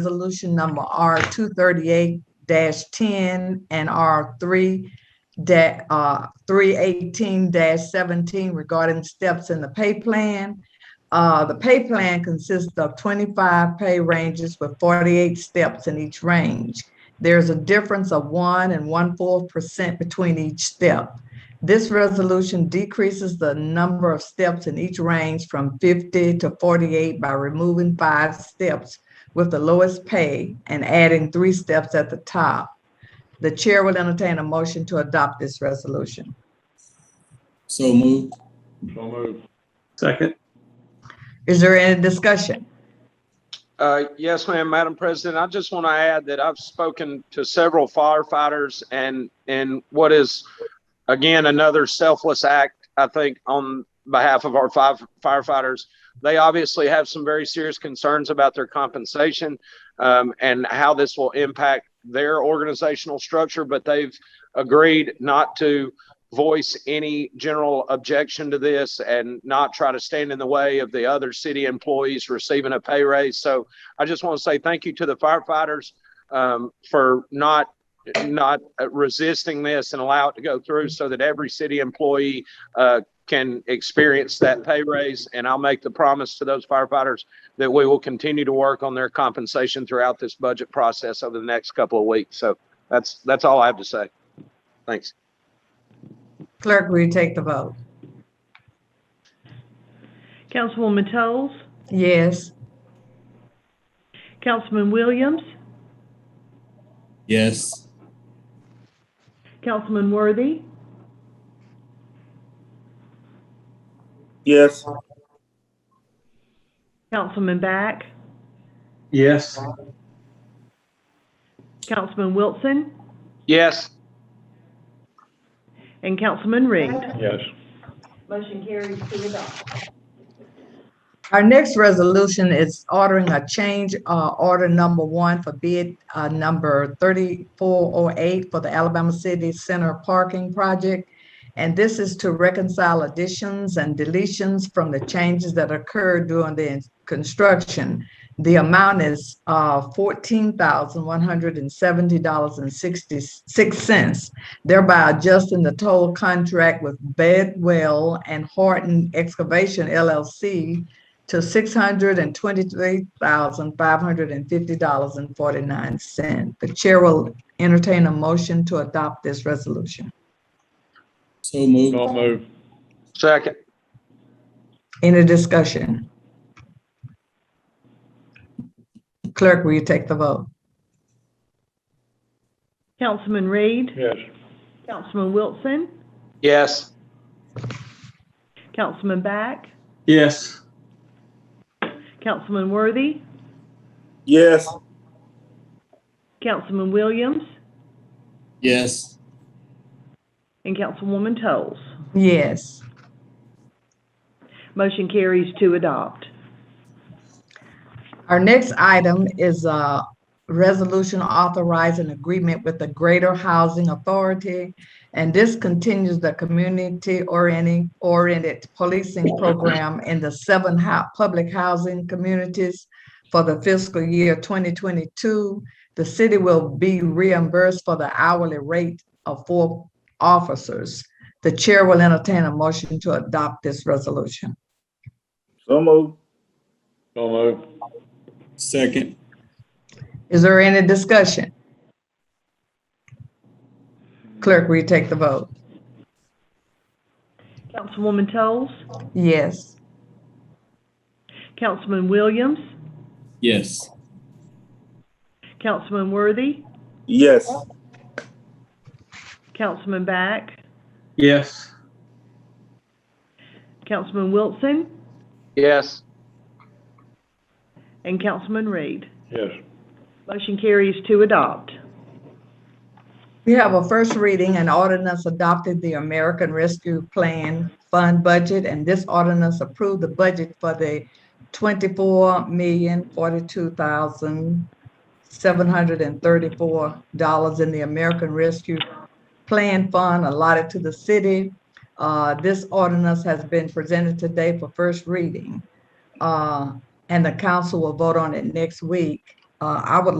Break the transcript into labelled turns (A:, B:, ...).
A: Resolution number R two thirty-eight ten and R three uh, three eighteen seventeen regarding steps in the pay plan. Uh, the pay plan consists of twenty-five pay ranges with forty-eight steps in each range. There's a difference of one and one-fourth percent between each step. This resolution decreases the number of steps in each range from fifty to forty-eight by removing five steps with the lowest pay and adding three steps at the top. The chair will entertain a motion to adopt this resolution.
B: So moved.
C: So moved.
D: Second,
A: Is there any discussion?
E: Uh, Yes, ma'am, Madam President. I just want to add that I've spoken to several firefighters and, and what is, again, another selfless act, I think, on behalf of our fi- firefighters. They obviously have some very serious concerns about their compensation um, and how this will impact their organizational structure, but they've agreed not to voice any general objection to this and not try to stand in the way of the other city employees receiving a pay raise. So I just want to say thank you to the firefighters um, for not not resisting this and allow it to go through so that every city employee uh, can experience that pay raise. And I'll make the promise to those firefighters that we will continue to work on their compensation throughout this budget process over the next couple of weeks. So that's that's all I have to say. Thanks.
A: Clerk, will you take the vote?
F: Councilwoman Toles,
A: Yes.
F: Councilman Williams,
B: Yes.
F: Councilman Worthy,
C: Yes.
F: Councilman Back,
D: yes,
F: Councilman Wilson,
E: Yes.
F: and Councilman Reed.
C: Yes.
A: Our next resolution is ordering a change, uh, order number one for bid, uh, number thirty-four oh eight for the Alabama City Center Parking Project. And this is to reconcile additions and deletions from the changes that occurred during the construction. The amount is, uh, fourteen thousand one hundred and seventy dollars and sixty-six cents, thereby adjusting the total contract with Bedwell and Horton Excavation LLC to six hundred and twenty-three thousand, five hundred and fifty dollars and forty-nine cent. The chair will entertain a motion to adopt this resolution.
B: So moved.
C: So moved.
E: Second.
A: Any discussion? Clerk, will you take the vote?
F: Councilman Reed,
C: Yes.
F: Councilman Wilson,
E: Yes.
F: Councilman Back,
D: yes,
F: Councilman Worthy,
C: Yes.
F: Councilman Williams,
B: Yes.
F: and Councilwoman Toles.
A: Yes.
F: Motion carries to adopt.
A: Our next item is a resolution authorizing agreement with the Greater Housing Authority. And this continues the community orienting, oriented policing program in the seven hou- public housing communities for the fiscal year twenty twenty-two. The city will be reimbursed for the hourly rate of four officers. The chair will entertain a motion to adopt this resolution.
C: So moved. So moved.
B: Second.
A: Is there any discussion? Clerk, will you take the vote?
F: Councilwoman Toles,
A: Yes.
F: Councilman Williams,
B: Yes.
F: Councilman Worthy,
C: Yes.
F: Councilman Back,
D: yes,
F: Councilman Wilson,
E: Yes.
F: and Councilman Reed.
C: Yes.
F: Motion carries to adopt.
A: We have a first reading and ordinance adopted the American Rescue Plan Fund budget, and this ordinance approved the budget for the twenty-four million forty-two thousand seven hundred and thirty-four dollars in the American Rescue Plan Fund allotted to the city. Uh, this ordinance has been presented today for first reading. Uh, and the council will vote on it next week. Uh, I would